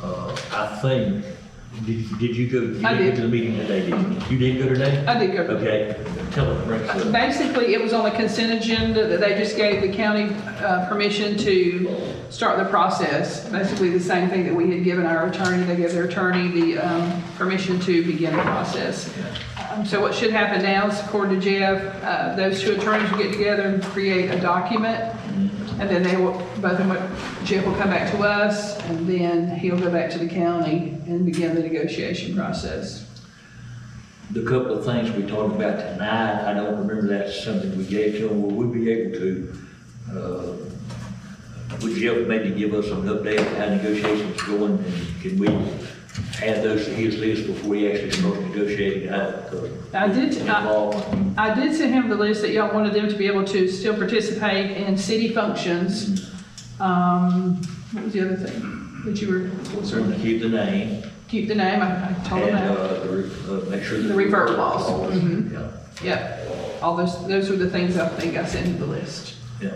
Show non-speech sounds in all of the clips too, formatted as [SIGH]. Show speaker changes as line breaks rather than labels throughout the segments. Uh, I think, did, did you go, you
I
didn't
did.
go to the meeting today, did you? You didn't go today?
I did go.
Okay, tell them, bring us up.
Basically, it was on the consent agenda that they just gave the county uh, permission to start the process. Basically, the same thing that we had given our attorney, they gave their attorney the um, permission to begin the process. Um, So what should happen now is, according to Jeff, uh, those two attorneys will get together and create a document, and then they will, both of them, Jeff will come back to us, and then he'll go back to the county and begin the negotiation process.
The couple of things we talked about tonight, I don't remember that's something we gave to them, will we be able to, uh, would Jeff maybe give us an update on how negotiations are going? and Can we add those to his list before he actually starts negotiating out? 'Cause
I did- I-
Involved.
I did send him the list that y'all wanted them to be able to still participate in city functions. Um, what was the other thing that you were,
Certainly keep the name
keep the name, I I told him
and,
that.
uh, the re- uh, make sure that.
The revert laws. Mhm.
Yeah,
Yep, all those, those were the things I think I sent him the list.
yeah.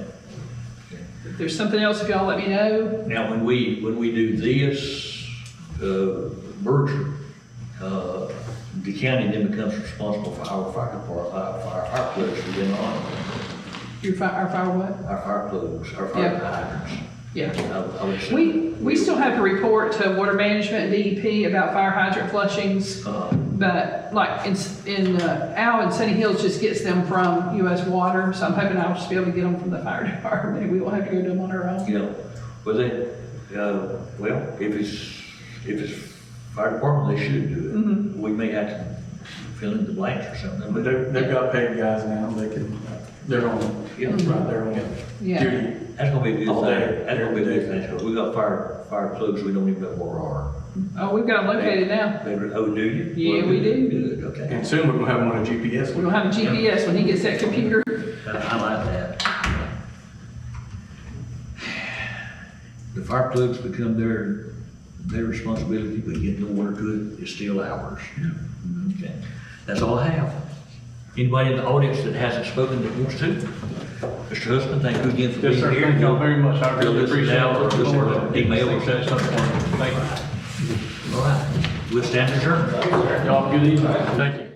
If there's something else, if y'all let me know,
Now, when we, when we do this, uh, merger, uh, the county then becomes responsible for our fire department, our fire, our plugs within our,
your fire, our fire what?
our fire plugs, our fire hydrants.
Yeah.
I I would say-
We, we still have to report to water management and DEP about fire hydrant flushings.
Uh,
But like in, in uh, Al and Sunny Hills just gets them from US Water, so I'm hoping I'll just be able to get them from the fire [LAUGHS] department. We won't have to go do them on our own.
you know, but they, uh, well, if it's, if it's fire department, they should do it.
Mm-hmm.
We may have to fill in the blanks or something,
But
but
they've, they've got paid guys now, they can, they're on,
Yeah.
right, they're on
Yeah.
duty.
that's gonna be a good
All
thing.
day.
That's gonna be a good thing, 'cause we got fire, fire plugs, we don't even know where are.
Oh, we've got them located now.
They were- oh, do you?
Yeah,
Well,
we
good,
do.
Good, okay.
And soon we're gonna have one on GPS.
We're gonna have a GPS when he gets that computer.
I Uh, I like that. The fire plugs become their, their responsibility, but getting the water to it is still ours. Okay, that's all I have. Anybody in the audience that hasn't spoken that wants to? Mr. Husband, thank you again for being
Yes,
here.
sir. Thank y'all very much. I
You'll
really
listen
appreciate
now
it.
or
Looking
listen
forward
to
to it.
email or send something.
Thank you.
All right, we'll stand adjourned.
Y'all, good evening. Thank you.